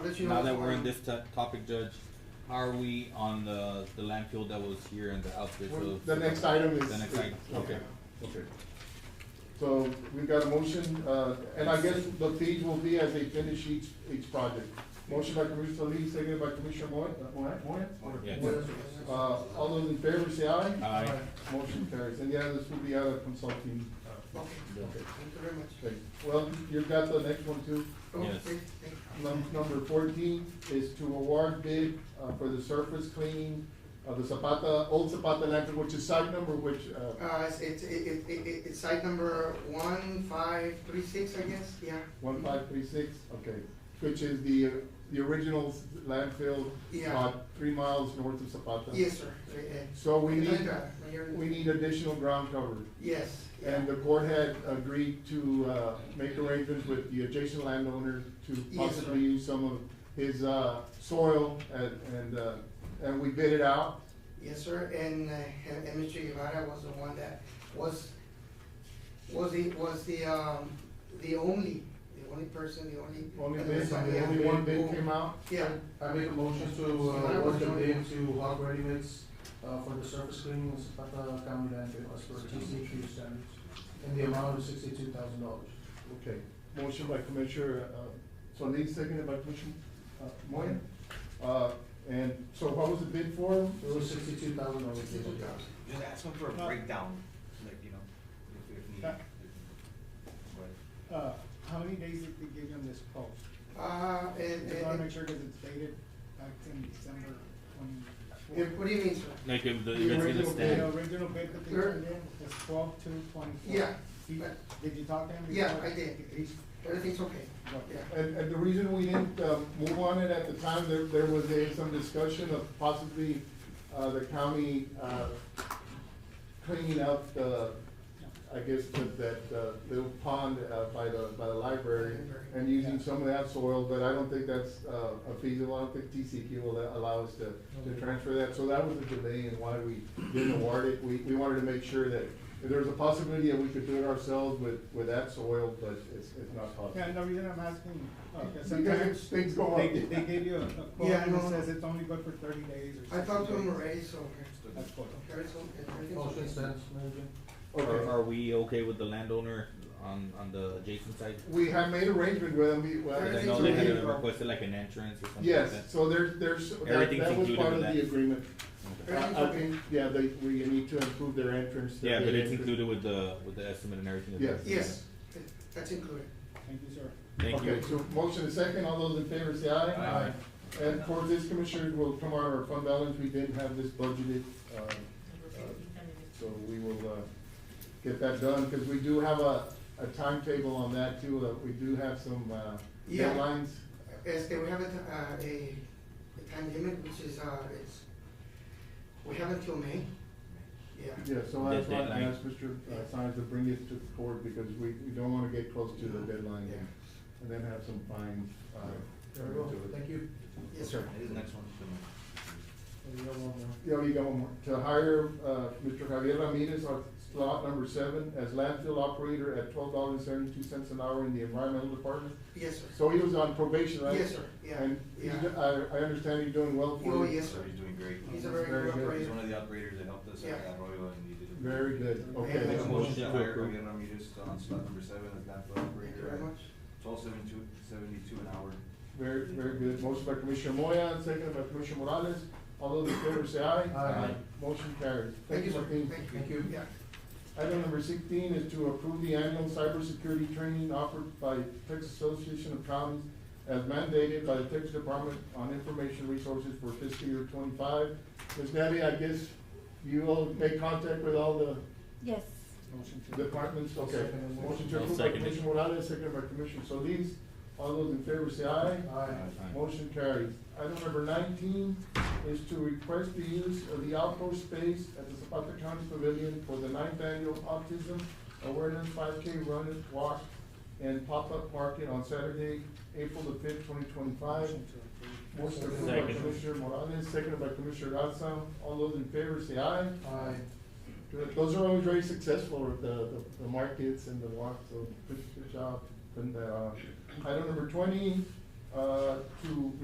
you now know, that we're are in you- this to- topic, Judge, how are we on the, the landfill that was here and the outfits Well, of? The next item is. The next item, okay. Okay. So we've got a motion, uh, and I guess the fees will be as they finish each, each project. Motion by Commissioner Solis, seconded by Commissioner Moy, uh, Moy, Moy? Or- Yeah. Moy. Uh, all those in favor say aye. Aye. Motion carries, and yeah, this will be out of consulting. Okay, Okay. thank you very much. Okay. Well, you've got the next one too. Oh, Yes. thank- thank- Num- Number fourteen is to award bid uh, for the surface cleaning of the Zapata, old Zapata landfill, which is site number which, uh, Uh, it's, it's, it, it, it, it's site number one five three six, I guess, yeah. one five three six, okay, which is the, uh, the original landfill Yeah. about three miles north of Zapata. Yes, sir. Uh, uh, So we need, Glenda, Mayor- we need additional ground cover. Yes. yeah. And the court had agreed to, uh, make arrangements with the adjacent landowner to Yes, sir. possibly use some of his, uh, soil and, and, uh, and we bid it out. Yes, sir, and, uh, and and Mr. Guevara was the one that was, was the, was the, um, the only, the only person, the only. Only uh, bid, somebody only that bid one bid who- came out? Yeah, I make a motion to, uh, award the bid to Hog Ready Mix, uh, for the surface cleaning of Zapata County landfill as per TCQ standards, in the amount of sixty-two thousand dollars. Okay, motion by Commissioner, uh, Solis, seconded by Commissioner, uh, Moya. Uh, and so what was the bid for? It was sixty-two thousand dollars. sixty-two thousand. Just ask them for a No. breakdown, like, you know, if, if need. Yeah. But Uh, how many days did they give him this quote? Uh, I and, just wanna make and, sure, cause it's dated back in December twenty-four. and what do you mean, sir? Like if the The event's gonna original The stand, original bid that they Sure. turned in was twelve to twenty-four. Yeah. He- Did you talk to him? Yeah, before? I did. He's- Everything's okay, what? yeah. And, and the reason we didn't, uh, move on it at the time, there, there was a, some discussion of possibly, uh, the county, uh, cleaning up the, I guess, that, that, uh, little pond, uh, by the, by the library and using some of that soil, but I don't think that's, uh, a feasible, I don't think TCQ will allow us to, to transfer that. So that was a delay in why we didn't award it. We, we wanted to make sure that if there was a possibility that we could do it ourselves with, with that soil, but it's, it's not possible. Yeah, and the reason I'm asking, uh, Because cause sometimes things go up. they, they give you a a quote Yeah, and it no. says it's only good for thirty days or I something. talked to him already, so, okay. That's quote. Everything's okay, Motion everything's okay. stands, Mayor Jim. are, Okay. are we okay with the landowner on, on the adjacent side? We have made arrangement with them, we, well. Cause I Everything's know they had okay. requested like an entrance or something like Yes, that. so there's, there's, that, Everything's that was included part of with that. the agreement. Okay. I, Everything's I okay. think, yeah, they, we need to improve their entrance. their Yeah, but gate it's entrance. included with the, with the estimate and everything. Yes. Okay. Yes, that's included. Thank you, sir. Thank you. Okay, so motion is second, all those in favor say aye. Aye. Aye. And for this, Commissioner, will come out of our fund balance, we didn't have this budgeted, uh, uh, so we will, uh, get that done, because we do have a, a timetable on that too, uh, we do have some, uh, Yeah. deadlines. Este, we have a, t- uh, a, a time limit, which is, uh, it's, we have until May, yeah. Yeah, so that's why I Deadline. asked Mr. uh, Sines to bring it to the court, because we, we don't wanna get close to the deadline, and- and then have some fines, uh, There we go, to it. thank you. Yes, sir. It is next one. so- And you have one more. Yeah, we got one more. To hire, uh, Mr. Javier Ramirez on slot number seven as landfill operator at twelve dollars and seventy-two cents an hour in the environmental department. Yes, sir. So he was on probation, right? Yes, sir, yeah, And he's yeah. do- I, I understand he's doing well for Oh, you. yes, So sir. he's doing great. He's a very Very good good. He's operator. one of the operators that helped us Yeah. at Arroyo and he did. a- Very good, I okay. make a Yeah. motion Motion to to hire approve. Javier Ramirez on slot number seven as landfill Thank you operator very at much. twelve seventy-two, seventy-two an hour. Very, very good. Motion by Commissioner Moya, second by Commissioner Morales. All those in favor say aye. Aye. Aye. Motion carries. Thank you, sir. Martin. Thank you. Thank you. Yeah. Item number sixteen is to approve the annual cybersecurity training offered by Texas Association of Counties as mandated by the Texas Department on Information Resources for fiscal year twenty-five. Ms. Natty, I guess you will make contact with all the Yes. Motion to. departments, okay? Second. Motion to I'll approve by second it. Commissioner Morales, second by Commissioner Solis. All those in favor say aye. Aye. Uh, Aye. Motion carries. Item number nineteen is to request the use of the outdoor space at the Zapata County Pavilion for the ninth annual autism awareness five K run and walk and pop-up market on Saturday, April the fifth, twenty twenty-five. Motion Motion to approve. approved by Second. Commissioner Morales, seconded by Commissioner Garza. All those in favor say aye. Aye. Good. Those are always very successful, the, the, the markets and the walks, so good, good job. And, uh, item number twenty, uh, to